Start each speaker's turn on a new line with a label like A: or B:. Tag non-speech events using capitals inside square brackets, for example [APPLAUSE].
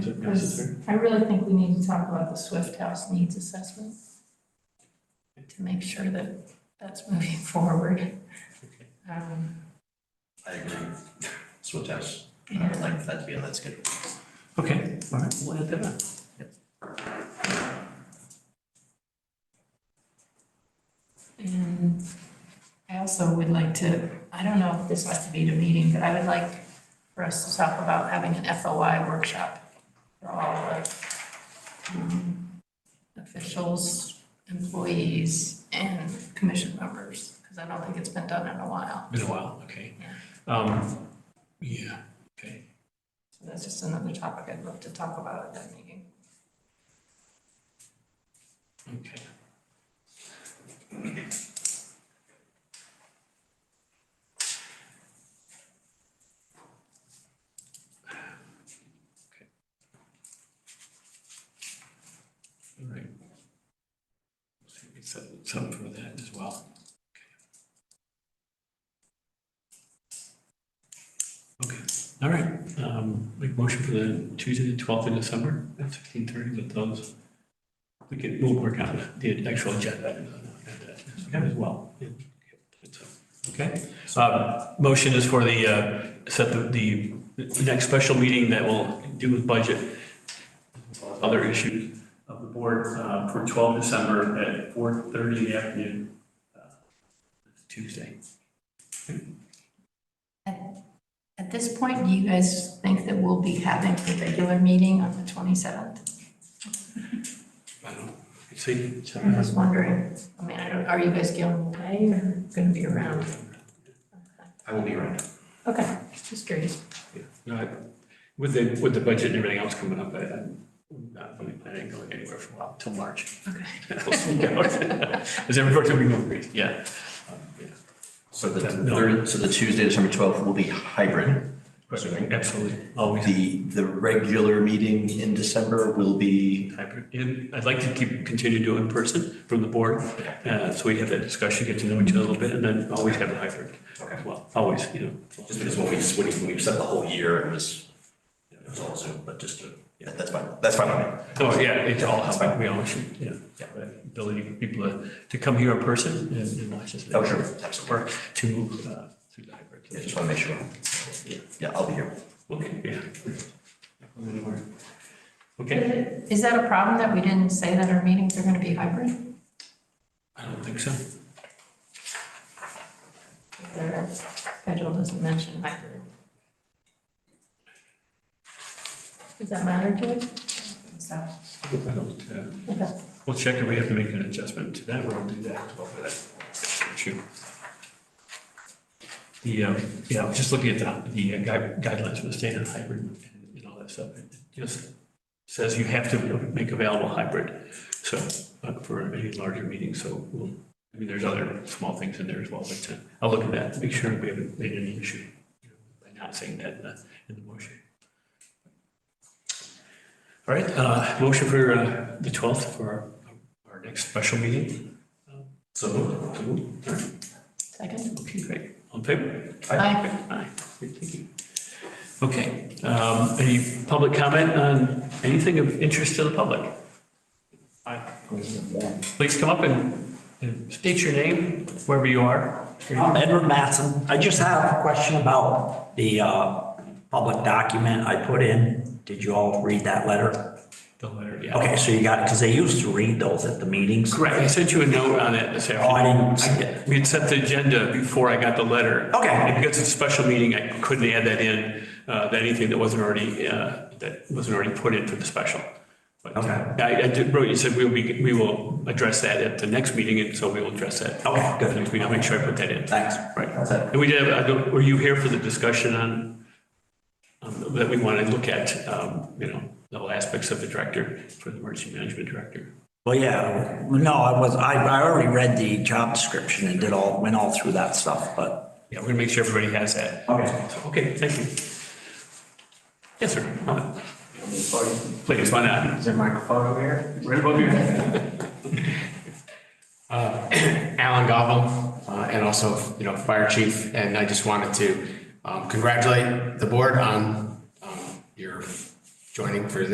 A: it
B: Because
A: necessary?
B: I really think we need to talk about the Swift House needs assessment to make sure that that's moving forward. Um,
C: I agree. [LAUGHS] Swift House, I would like that to be on that schedule.
A: Okay, all right, we'll add that on.
B: And I also would like to, I don't know if this has to be at a meeting, but I would like for us to talk about having an FOI workshop for all the um, officials, employees, and commission members, because I don't think it's been done in a while.
A: Been a while, okay. Um, yeah, okay.
B: So that's just another topic I'd love to talk about at that meeting.
A: Okay. All right. So we set Some for that as well. Okay, all right, um, make motion for the Tuesday, the twelfth of December at sixteen thirty with those we can, we'll work on the actual agenda as well. Okay, Uh, motion is for the, uh, set the, the next special meeting that will do with budget, other issues of the board uh, for 12 December at 4:30 in the afternoon. uh, Tuesday.
B: At this point, do you guys think that we'll be having a regular meeting on the twenty-seventh?
A: I don't, see, so,
B: I'm just wondering, I mean, I don't, are you guys going away or gonna be around?
C: I will be around.
B: Okay, just curious.
A: no, I- with the, with the budget and everything else coming up, I- I'm not really planning on going anywhere for a while, till March. [LAUGHS]
B: Okay.
A: Is everybody going to agree? Yeah. Um, yeah.
C: So the
A: No.
C: third, so the Tuesday, December twelfth will be hybrid. Assuming.
A: Absolutely, always
C: The, the regular meeting in December will be,
A: hybrid. And I'd like to keep, continue to do in person from the board. uh, So we have that discussion, get to know each other a little bit, and then always have a hybrid as well, always, you know.
C: just because when we, when we set the whole year, it was, it was all Zoom, but just, to- yeah, that's fine, that's fine. on me.
A: Oh, yeah, it's all how we all should, yeah. yeah, Ability for people to- to come here in person and and watch us.
C: Oh, sure, absolutely.
A: Or to move uh, through the hybrid.
C: Yeah, just want to make sure. Yeah, I'll be here.
A: Okay, yeah. Okay,
B: Is that a problem that we didn't say that our meetings are gonna be hybrid?
A: I don't think so.
B: Their schedule doesn't mention hybrid. Does that matter to you? So,
A: I don't, uh,
B: okay.
A: We'll check if we have to make an adjustment to that, we'll do that as well for that issue. The, um, yeah, I was just looking at the, the gui- guidelines for the standard hybrid and and all that stuff. It just says you have to make available hybrid, so, uh, for any larger meeting, so we'll, I mean, there's other small things in there as well, but uh, I'll look at that, make sure we haven't made any issue you know, by not saying that in the, in the motion. All right, uh, motion for uh, the 12th for our our next special meeting. So moved. So moved. All right.
B: Second?
A: Okay, great. On paper?
B: Aye.
A: Aye. Great, Thank you. Okay, um, any public comment on anything of interest to the public? Aye. Please come up and and state your name, wherever you are.
D: Um, Edward Matson, I just have a question about the uh, public document I put in. Did you all read that letter?
A: The letter, yeah.
D: Okay, so you got it, because they used to read those at the meetings.
A: Correct, I sent you a note on it this
D: Oh, I
A: afternoon.
D: didn't see it.
A: We had set the agenda before I got the letter.
D: Okay.
A: And Because it's a special meeting, I couldn't add that in, uh, that anything that wasn't already, uh, that wasn't already put in for the special. But uh,
D: Okay.
A: I, I did, wrote, you said we'll be, we will address that at the next meeting, and so we will address that.
D: Okay, good.
A: At the next meeting, I'll make sure I put that in.
D: Thanks.
A: Right.
D: That's it.
A: And we did, have- I don't- were you here for the discussion on, um, that we want to look at, um, you know, all aspects of the director, for the emergency management director?
D: Well, yeah, no, I was, I, I already read the job description and did all, went all through that stuff, but.
A: Yeah, we're gonna make sure everybody has that.
D: Okay.
A: So, Okay, thank you. Yes, sir. Please, why not?
E: Is there a microphone over here?
A: Right above your head.
E: Alan Gobble, uh, and also, you know, Fire Chief, and I just wanted to um, congratulate the board on um, your joining for the